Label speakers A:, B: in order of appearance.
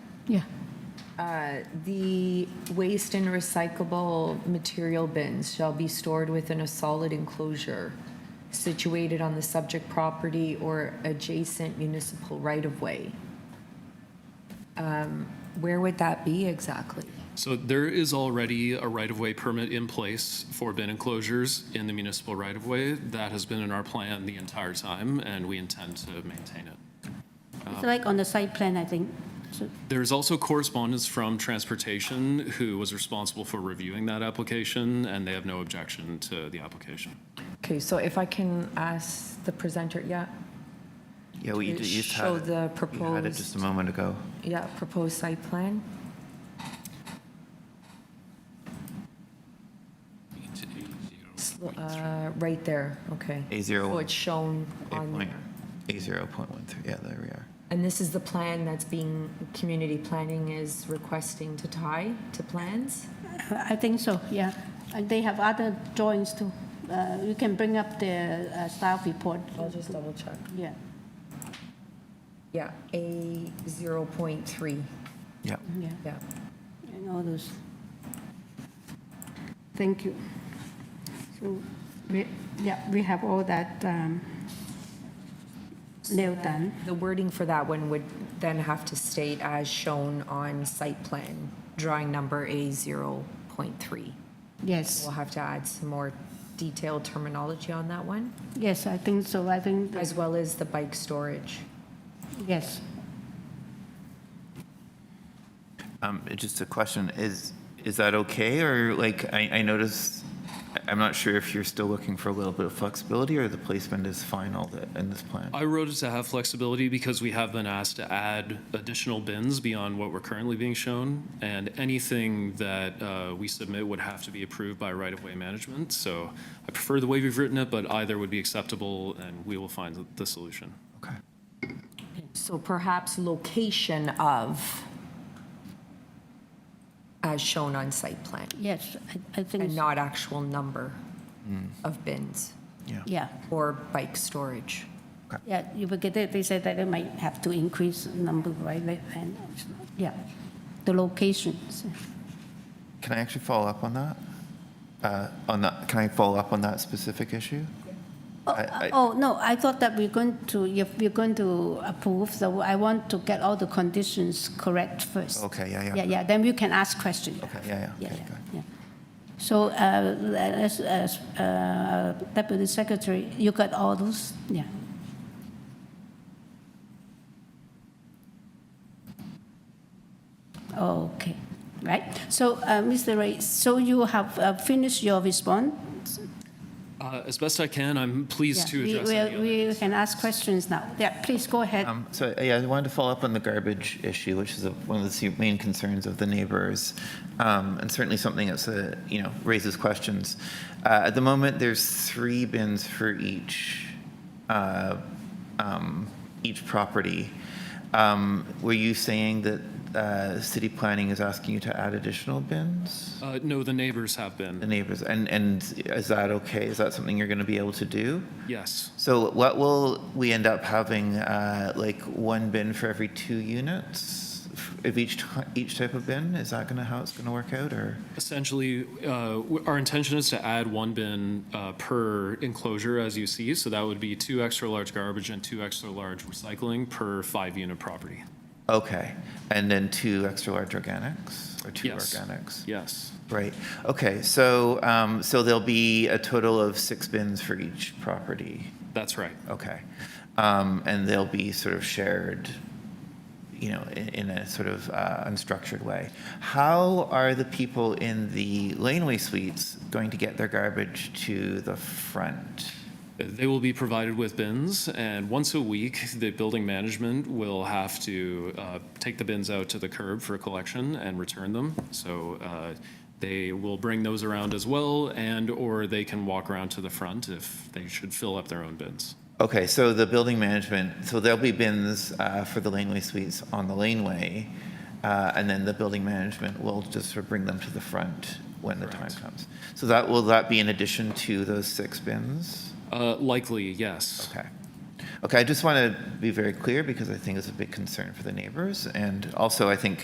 A: Yeah.
B: Uh, The waste and recyclable material bins shall be stored within a solid enclosure situated on the subject property or adjacent municipal right-of-way. Um, Where would that be exactly?
C: So there is already a right-of-way permit in place for bin enclosures in the municipal right-of-way. That has been in our plan the entire time, and we intend to maintain it.
D: It's like on the site plan, I think. So-
C: There's also correspondence from Transportation, who was responsible for reviewing that application, and they have no objection to the application.
B: Okay, so if I can ask the presenter, yeah,
E: Yeah, we
B: It
E: d- you just
B: show
E: had it.
B: the
E: You had it just a
B: proposed-
E: moment ago.
B: yeah, proposed site plan? Sl- uh, Right there, okay.
E: A01.
B: So it's shown on there.
E: A zero point one three. Yeah, there we are.
B: And this is the plan that's being, community planning is requesting to tie to plans?
D: I think so, yeah. And they have other drawings too. Uh, You can bring up the uh, staff report.
B: I'll just double check.
D: Yeah.
B: Yeah, A zero point three,
E: Yeah.
D: Yeah,
B: yeah.
D: and all those. Thank you. So, we, yeah, we have all that um, nailed down.
B: The wording for that one would then have to state as shown on site plan, drawing number A zero point three.
D: Yes,
B: We'll have to add some more detailed terminology on that one,
D: yes, I think so. I think,
B: as well as the bike storage.
D: yes.
E: Um, it- just a question: Is is that okay, or like I, I noticed? I- I'm not sure if you're still looking for a little bit of flexibility, or the placement is final th- in this plan.
C: I wrote it to have flexibility because we have been asked to add additional bins beyond what we're currently being shown, and anything that uh, we submit would have to be approved by right-of-way management. So I prefer the way we've written it, but either would be acceptable, and we will find the- the solution.
E: Okay.
B: So perhaps location of, as shown on site plan,
D: Yes, I- I think,
B: and
D: so.
B: not actual number of bins
E: Yeah.
D: yeah.
B: or bike storage.
D: Yeah, you will get it, they said that they might have to increase number, right, like, and, yeah, the locations.
E: Can I actually follow up on that? Uh, on that, can I follow up on that specific issue?
D: Oh,
E: I- I-
D: Oh, no, I thought that we're going to, if we're going to approve, so I want to get all the conditions correct first.
E: Okay, yeah, yeah.
D: Yeah, yeah, then we can ask questions.
E: Okay, yeah, yeah,
D: Yeah,
E: okay,
D: yeah,
E: good.
D: yeah. So, uh, as, as, uh, Deputy Secretary, you got all those? Yeah. Okay, right. So, uh, Mr. Ray, so you have uh, finished your response?
C: Uh, As best I can, I'm pleased
D: Yeah,
C: to
D: we-
C: address
D: we-
C: any other
D: We can ask questions now. Yeah, please go ahead.
E: Um, So, yeah, I wanted to follow up on the garbage issue, which is a- one of the se- main concerns of the neighbors, um, and certainly something that's, a- you know, raises questions. Uh, At the moment, there's three bins for each, uh, um, each property. Um, Were you saying that uh, city planning is asking you to add additional bins?
C: Uh, No, the neighbors have
E: The
C: been,
E: neighbors, and, and is that okay? Is that something you're going to be able to do?
C: yes.
E: So what will we end up having, uh, like one bin for every two units of each, ti- each type of bin? Is that gonna, how it's gonna work out, or?
C: Essentially, uh, w- our intention is to add one bin uh, per enclosure, as you see. So that would be two extra-large garbage and two extra-large recycling per five-unit property.
E: Okay, and then two extra large organics, or two
C: Yes.
E: organics?
C: Yes,
E: Right, okay, so, um, so there'll be a total of six bins for each property?
C: that's right.
E: Okay. Um, and they'll be sort of shared, you know, in, in a sort of uh, unstructured way. How are the people in the laneway suites going to get their garbage to the front?
C: They will be provided with bins, and once a week, the building management will have to uh, take the bins out to the curb for collection and return them. So uh, they will bring those around as well, and/or they can walk around to the front if they should fill up their own bins.
E: Okay, so the building management, so there'll be bins uh, for the laneway suites on the laneway, uh, and then the building management will just sort of bring them to the front when the time comes. So that will that be in addition to those six bins?
C: Uh, Likely, yes.
E: Okay. Okay, I just want to be very clear because I think it's a big concern for the neighbors. And also, I think